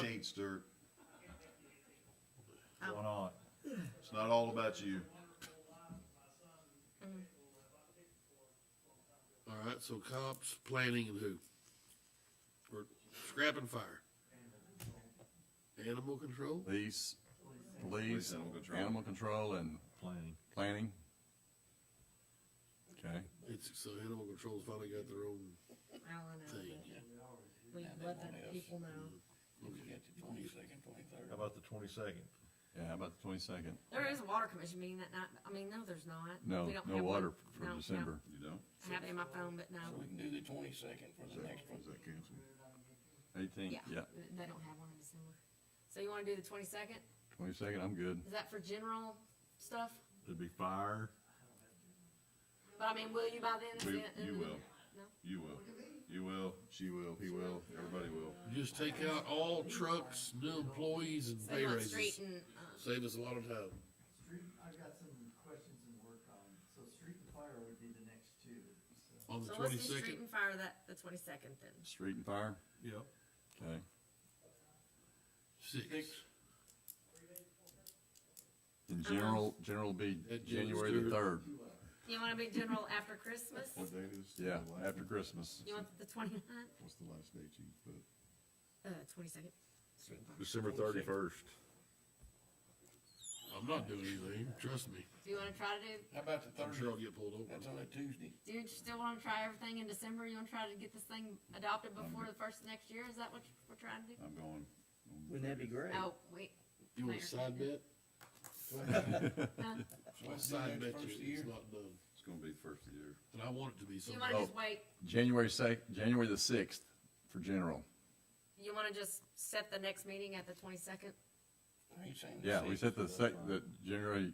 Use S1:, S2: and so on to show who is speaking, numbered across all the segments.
S1: taints dirt.
S2: Why not?
S1: It's not all about you.
S3: All right, so cops, planning, and who? We're scrapping fire. Animal control?
S4: Police,
S1: Police,
S4: police,
S1: animal control.
S4: animal control and
S2: Planning.
S4: planning. Okay,
S3: It's, so animal control's finally got their own
S5: Alan, I
S3: thing.
S5: think. we let the people know.
S2: How about the twenty-second?
S4: yeah, how about the twenty-second?
S5: There is a water commission meeting that night, I mean, no, there's not.
S4: No,
S5: We don't
S4: no
S5: have one.
S4: water
S5: No,
S4: for
S5: no.
S4: December.
S1: You don't?
S5: I have it in my phone, but no,
S1: Is that, is that canceled?
S4: Eighteenth,
S5: yeah,
S4: yeah,
S5: they don't have one in December. So you wanna do the twenty-second?
S4: twenty-second, I'm good.
S5: Is that for general stuff?
S2: It'd be fire.
S5: But I mean, will you by then?
S1: We,
S5: Is it-
S1: you will.
S5: No.
S1: You will. You will, she will, he will, everybody will.
S3: Just take out all trucks, new employees, and
S5: So you
S3: pay
S5: want street
S3: raises.
S5: and, uh,
S3: Save us a lot of time.
S6: Street, I've got some questions and work on, so street and fire would be the next two, so.
S3: On the
S5: so let's do street
S3: twenty-second,
S5: and fire that, the twenty-second then.
S4: Street and fire,
S2: Yep.
S4: okay,
S3: six.
S5: Uh-huh.
S4: and general, general will be
S3: That June
S4: January the third,
S3: third.
S5: You wanna be general after Christmas?
S1: What date is? the
S4: yeah,
S1: last-
S4: after Christmas.
S5: You want the twenty-ninth,
S1: What's the last date you put?
S5: uh, twenty-second? Street and fire.
S2: December thirty-first.
S3: I'm not doing anything, trust me.
S5: Do you wanna try to do,
S7: How about the
S3: I'm sure
S7: thirtieth?
S3: I'll get pulled
S7: That's
S3: over.
S7: on a Tuesday.
S5: do you still wanna try everything in December? You wanna try to get this thing adopted before the first of next year? Is that what you- we're trying to do?
S1: I'm going.
S6: Wouldn't that be great?
S5: Oh, wait,
S3: You want a side bet?
S7: So let's do
S3: Side
S7: that
S3: bet
S7: first of the
S3: you
S7: year.
S3: it's not done.
S1: It's gonna be the first of the year.
S3: And I want it to be
S5: do you
S3: something.
S5: wanna just
S4: Oh.
S5: wait,
S4: January sec, January the sixth for general.
S5: you wanna just set the next meeting at the twenty-second?
S7: I ain't saying
S4: Yeah, we
S7: six,
S4: set the
S7: but
S4: sec,
S7: that's fine.
S4: the January,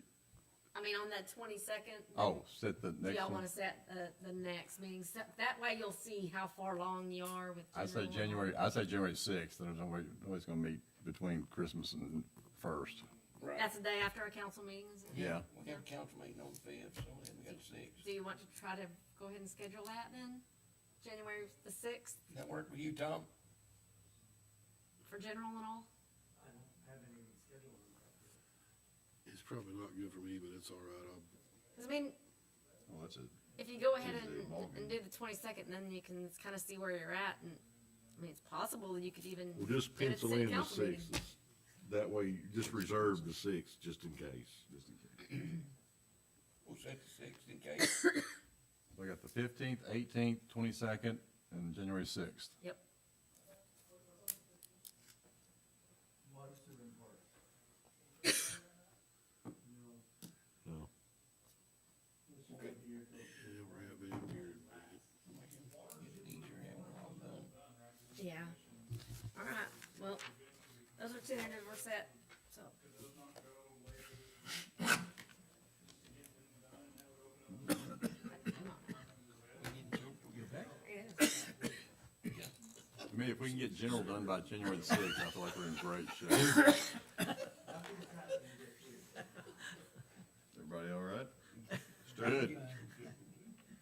S5: I mean, on that twenty-second?
S4: oh, set the
S5: Do
S4: next
S5: y'all
S4: one.
S5: wanna set the, the next meeting? So, that way you'll see how far along you are with
S4: I say
S5: general.
S4: January, I say January sixth, there's always, always gonna meet between Christmas and first,
S7: Right,
S5: That's the day after our council meeting, is it?
S4: yeah.
S7: we have a council meeting on the fifth, so then we got six.
S5: Do you want to try to go ahead and schedule that then? January the sixth
S7: Does That work with you, Tom?
S5: for general and all?
S6: I don't have any scheduled.
S3: It's probably not good for me, but it's all right. I'll,
S5: Cause I mean,
S1: Well, that's it.
S5: if you go ahead
S1: Tuesday,
S5: and,
S1: ballgame.
S5: and do the twenty-second, then you can kinda see where you're at and, I mean, it's possible that you could even.
S8: Well, just
S5: get a
S8: pencil
S5: city
S8: in the
S5: council meeting.
S8: sixth, that way, you just reserve the sixth, just in case.
S1: Just in case.
S7: We'll set the sixth in case.
S4: We got the fifteenth, eighteenth, twenty-second, and January sixth.
S5: Yep,
S6: Water, sewer, and park. No,
S2: No.
S6: this should be your first.
S3: yeah, we're having here.
S7: Get it easier, have it all done.
S5: yeah. Alright, well, those are tentative, we're set, so.
S7: We need to, we get back.
S4: I mean, if we can get general done by January the sixth, I feel like we're in great shape.
S1: Everybody all right?
S4: Good.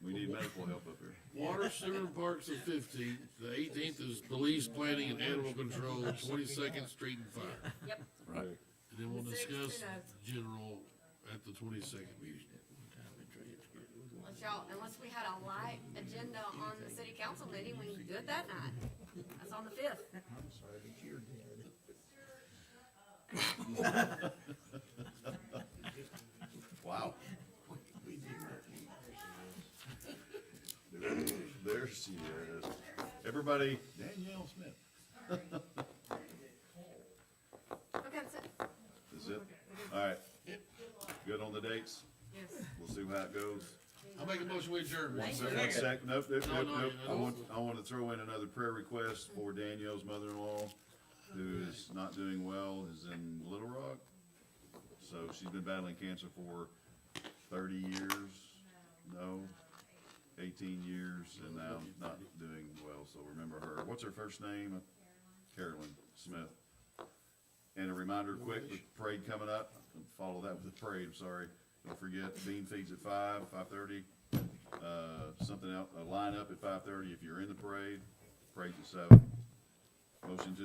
S1: We need medical help up here.
S3: Water, sewer, and parks the fifteenth, the eighteenth is police, planning, and animal control, twenty-second, street and fire.
S5: Yep,
S4: Right.
S3: And then we'll
S5: The sixth
S3: discuss
S5: and
S3: general at the twenty-second meeting.
S5: unless y'all, unless we had a light agenda on the city council meeting, we can do it that night. That's on the fifth.
S4: Wow.
S1: There, there she is. Everybody, Danielle Smith.
S5: Okay, that's it.
S1: That's it? All right. Good on the dates?
S5: Yes.
S1: We'll see how it goes.
S3: I'll make a motion with adjourn.
S1: One sec, one sec, nope, nope,
S3: No,
S1: nope,
S3: no,
S1: nope.
S3: no,
S1: I
S3: no.
S1: want, I want to throw in another prayer request for Danielle's mother-in-law, who is not doing well, is in Little Rock. So she's been battling cancer for thirty years, no, eighteen years, and now not doing well, so remember her. What's her first name? Carolyn Smith. And a reminder quick, the parade coming up, follow that with the parade, I'm sorry. Don't forget, bean feeds at five, five-thirty, uh, something out, a lineup at five-thirty if you're in the parade, parade's at seven. Motion to